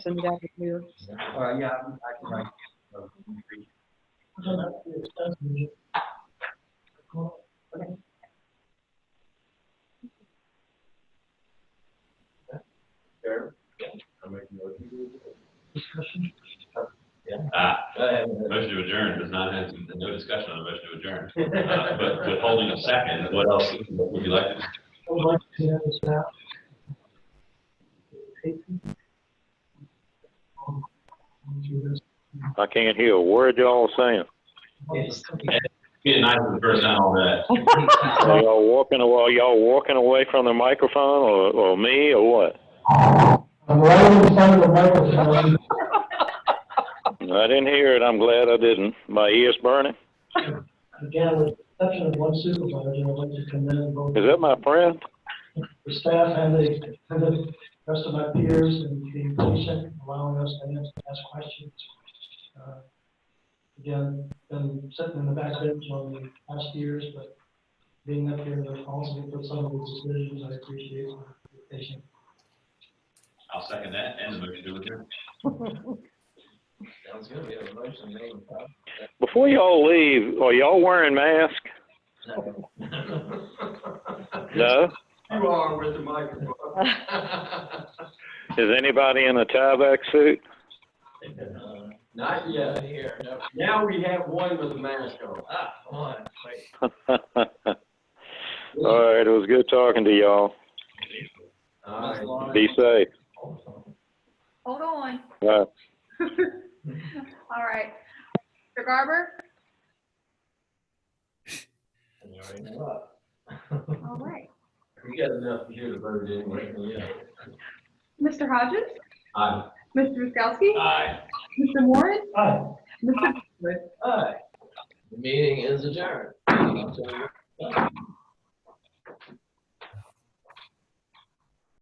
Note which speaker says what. Speaker 1: send it out to you.
Speaker 2: Uh, yeah, I can write. uh, There. I'm making a motion.
Speaker 3: Ah,
Speaker 2: Go ahead.
Speaker 3: motion to adjourn does not have, no discussion on a motion to adjourn. Uh, But withholding a second, what else would you like to?
Speaker 4: I can't hear a word y'all saying.
Speaker 3: Be nice to the person out on that.
Speaker 4: Are y'all walking, aw- are y'all walking away from the microphone or, or me or what?
Speaker 5: I'm right in front of the microphone.
Speaker 4: I didn't hear it. I'm glad I didn't. My ears burning.
Speaker 5: Again, with the exception of one supervisor, I'd like to commend both
Speaker 4: Is that my friend?
Speaker 5: the staff and the, and the rest of my peers and being patient, allowing us to answer, ask questions. Uh, Again, been sitting in the back bench on the past years, but being up here and responsible for some of those decisions, I appreciate your patience.
Speaker 3: I'll second that and the motion to adjourn.
Speaker 2: Sounds good, we have a motion made. and proper.
Speaker 4: Before y'all leave, are y'all wearing masks? No?
Speaker 2: You are with the microphone.
Speaker 4: Is anybody in a tieback suit?
Speaker 2: Uh, Not yet here, no. Now we have one with a mask on. Ah, one, wait.
Speaker 4: All right, it was good talking to y'all.
Speaker 2: All right.
Speaker 4: Be safe.
Speaker 6: Hold on.
Speaker 4: All right.
Speaker 6: All right. Mr. Garber?
Speaker 2: You already know it.
Speaker 6: All right.
Speaker 2: We got enough here to vote anyway, yeah.
Speaker 6: Mr. Hodges?
Speaker 2: Aye.
Speaker 6: Mr. Miskowski?
Speaker 3: Aye.
Speaker 6: Mr. Warren?
Speaker 5: Aye.
Speaker 6: Mr.
Speaker 2: Aye. The meeting is adjourned.